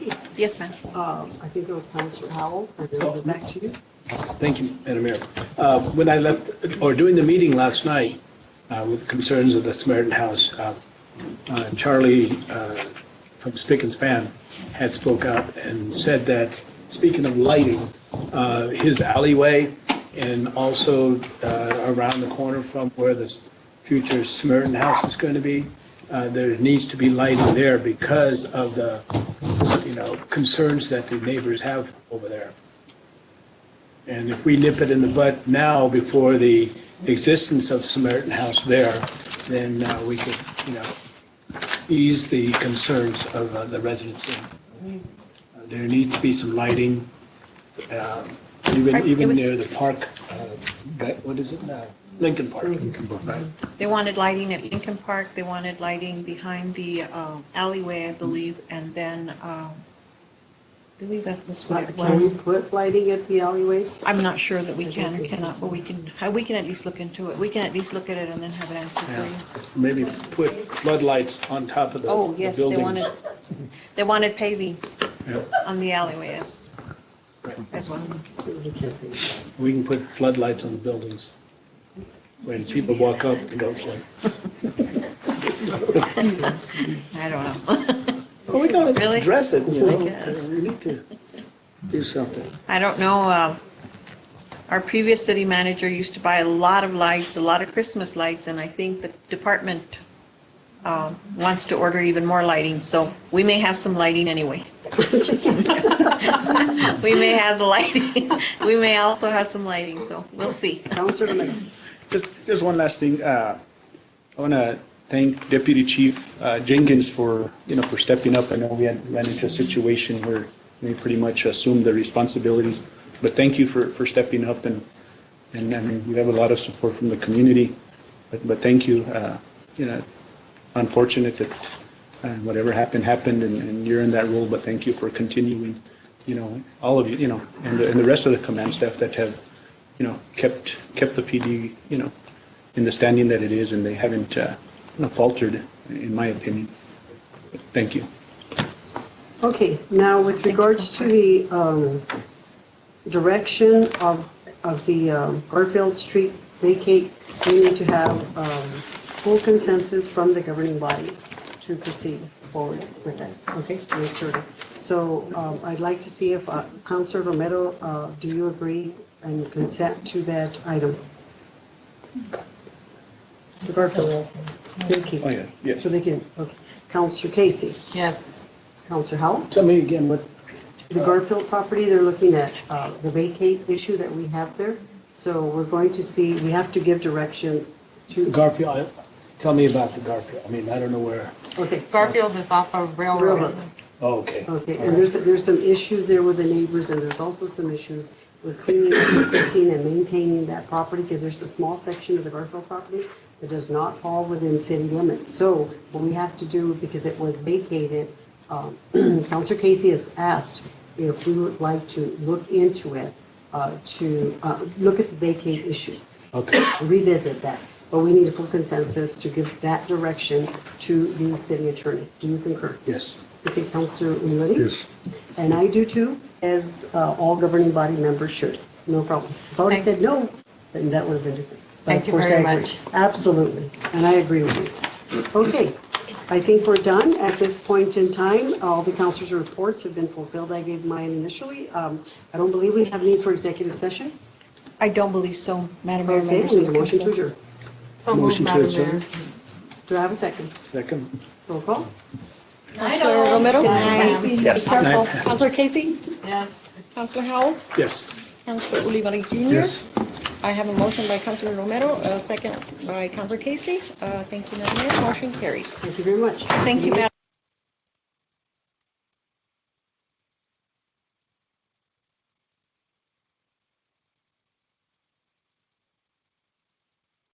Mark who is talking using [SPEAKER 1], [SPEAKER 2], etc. [SPEAKER 1] Yes, ma'am.
[SPEAKER 2] Um, I think it was Counselor Howell, and then we'll go back to you.
[SPEAKER 3] Thank you, Madam Mayor. Uh, When I left, or during the meeting last night uh, with concerns of the Samaritan House, uh, uh, Charlie uh, from Spick and Span had spoke up and said that, speaking of lighting, uh, his alleyway and also uh, around the corner from where this future Samaritan House is going to be, uh, there needs to be lighting there because of the, you know, concerns that the neighbors have over there. And if we nip it in the bud now before the existence of Samaritan House there, then uh, we could, you know, ease the concerns of uh, the residents. there. Uh, There needs to be some lighting, um,
[SPEAKER 1] Right,
[SPEAKER 3] even,
[SPEAKER 1] it
[SPEAKER 3] even
[SPEAKER 1] was-
[SPEAKER 3] near the park, uh, that- what is it now? Lincoln Park. Lincoln Park.
[SPEAKER 1] They wanted lighting at Lincoln Park, they wanted lighting behind the um, alleyway, I believe, and then, um, I believe that was what it
[SPEAKER 2] Can we
[SPEAKER 1] was.
[SPEAKER 2] put lighting at the alleyways?
[SPEAKER 1] I'm not sure that we can or cannot, but we can, uh, we can at least look into it. We can at least look at it and then have an answer for you.
[SPEAKER 3] Maybe put floodlights on top of the the
[SPEAKER 1] Oh,
[SPEAKER 3] buildings.
[SPEAKER 1] yes, they wanted, they wanted paving
[SPEAKER 3] Yeah.
[SPEAKER 1] on the alleyways as well.
[SPEAKER 3] We can put floodlights on the buildings. When people walk up, it goes like,
[SPEAKER 1] I don't know.
[SPEAKER 3] oh, we gotta
[SPEAKER 1] Really?
[SPEAKER 3] address it, you
[SPEAKER 1] I
[SPEAKER 3] know?
[SPEAKER 1] guess.
[SPEAKER 3] We need to do something.
[SPEAKER 1] I don't know, uh, our previous city manager used to buy a lot of lights, a lot of Christmas lights, and I think the department um, wants to order even more lighting, so we may have some lighting anyway. We may have the lighting, we may also have some lighting, so we'll see.
[SPEAKER 2] Counselor Lemon.
[SPEAKER 4] Just, just one last thing. Uh, I want to thank Deputy Chief uh, Jenkins for, you know, for stepping up. I know we had ran into a situation where we pretty much assumed the responsibilities, but thank you for, for stepping up and, and I mean, you have a lot of support from the community, but, but thank you. Uh, You know, unfortunate that uh, whatever happened, happened and, and you're in that role, but thank you for continuing, you know, all of you, you know, and, the- and the rest of the command staff that have, you know, kept, kept the PD, you know, in the standing that it is, and they haven't uh, you know, faltered, in my opinion. Thank you.
[SPEAKER 2] Okay, now with regards to the um, direction of, of the um, Garfield Street vacate, we need to have um, full consensus from the governing body to proceed forward with that, okay? Yes, sir. So um, I'd like to see if uh, Counselor Romero, uh, do you agree and consent to that item? The Garfield
[SPEAKER 4] Oh,
[SPEAKER 2] vacate,
[SPEAKER 4] yeah, yes.
[SPEAKER 2] so they can, okay. Counselor Casey,
[SPEAKER 1] Yes.
[SPEAKER 2] Counselor Howell?
[SPEAKER 3] Tell me again what
[SPEAKER 2] The Garfield property, they're looking at uh, the vacate issue that we have there. So we're going to see, we have to give direction to,
[SPEAKER 3] Garfield, I- tell me about the Garfield. I mean, I don't know where,
[SPEAKER 2] okay,
[SPEAKER 5] Garfield is off of
[SPEAKER 2] Railroad.
[SPEAKER 5] Railroad.
[SPEAKER 3] oh, okay.
[SPEAKER 2] okay. And there's, there's some issues there with the neighbors and there's also some issues with cleaning, and fixing and maintaining that property because there's a small section of the Garfield property that does not fall within city limits. So what we have to do, because it was vacated, um, Counselor Casey has asked if we would like to look into it, uh, to uh, look at the vacate issue.
[SPEAKER 3] Okay,
[SPEAKER 2] revisit that, but we need a full consensus to give that direction to the city attorney. Do you concur?
[SPEAKER 3] yes.
[SPEAKER 2] Okay, Counselor Mulready? Yes. And I do too, as uh, all governing body members should. No problem. If I would have
[SPEAKER 5] Thank-
[SPEAKER 2] said no, then that would have been different. But
[SPEAKER 5] Thank
[SPEAKER 2] of
[SPEAKER 5] you
[SPEAKER 2] course, I
[SPEAKER 5] very
[SPEAKER 2] agree.
[SPEAKER 5] much.
[SPEAKER 2] Absolutely, and I agree with you. Okay, I think we're done at this point in time. All the counselors' reports have been fulfilled. I gave mine initially. Um, I don't believe we have need for executive session.
[SPEAKER 1] I don't believe so, Madam Mayor.
[SPEAKER 2] Okay,
[SPEAKER 1] members
[SPEAKER 2] we
[SPEAKER 1] of
[SPEAKER 2] need a
[SPEAKER 1] the
[SPEAKER 2] motion to
[SPEAKER 1] council.
[SPEAKER 2] adjourn.
[SPEAKER 5] So moved,
[SPEAKER 3] Motion to
[SPEAKER 5] Madam
[SPEAKER 3] adjourn.
[SPEAKER 5] Mayor.
[SPEAKER 2] Do I have a second?
[SPEAKER 3] Second.
[SPEAKER 2] Roll call.
[SPEAKER 6] Counselor Romero?
[SPEAKER 3] Yes.
[SPEAKER 6] Careful. Counselor Casey?
[SPEAKER 5] Yes.
[SPEAKER 6] Counselor Howell?
[SPEAKER 3] Yes.
[SPEAKER 6] Counselor Olivari Junior?
[SPEAKER 3] Yes.
[SPEAKER 6] I have a motion by Counselor Romero, a second by Counselor Casey. Uh, Thank you, Madam Mayor. Motion carries.
[SPEAKER 2] Thank you very much.
[SPEAKER 1] Thank you, Madam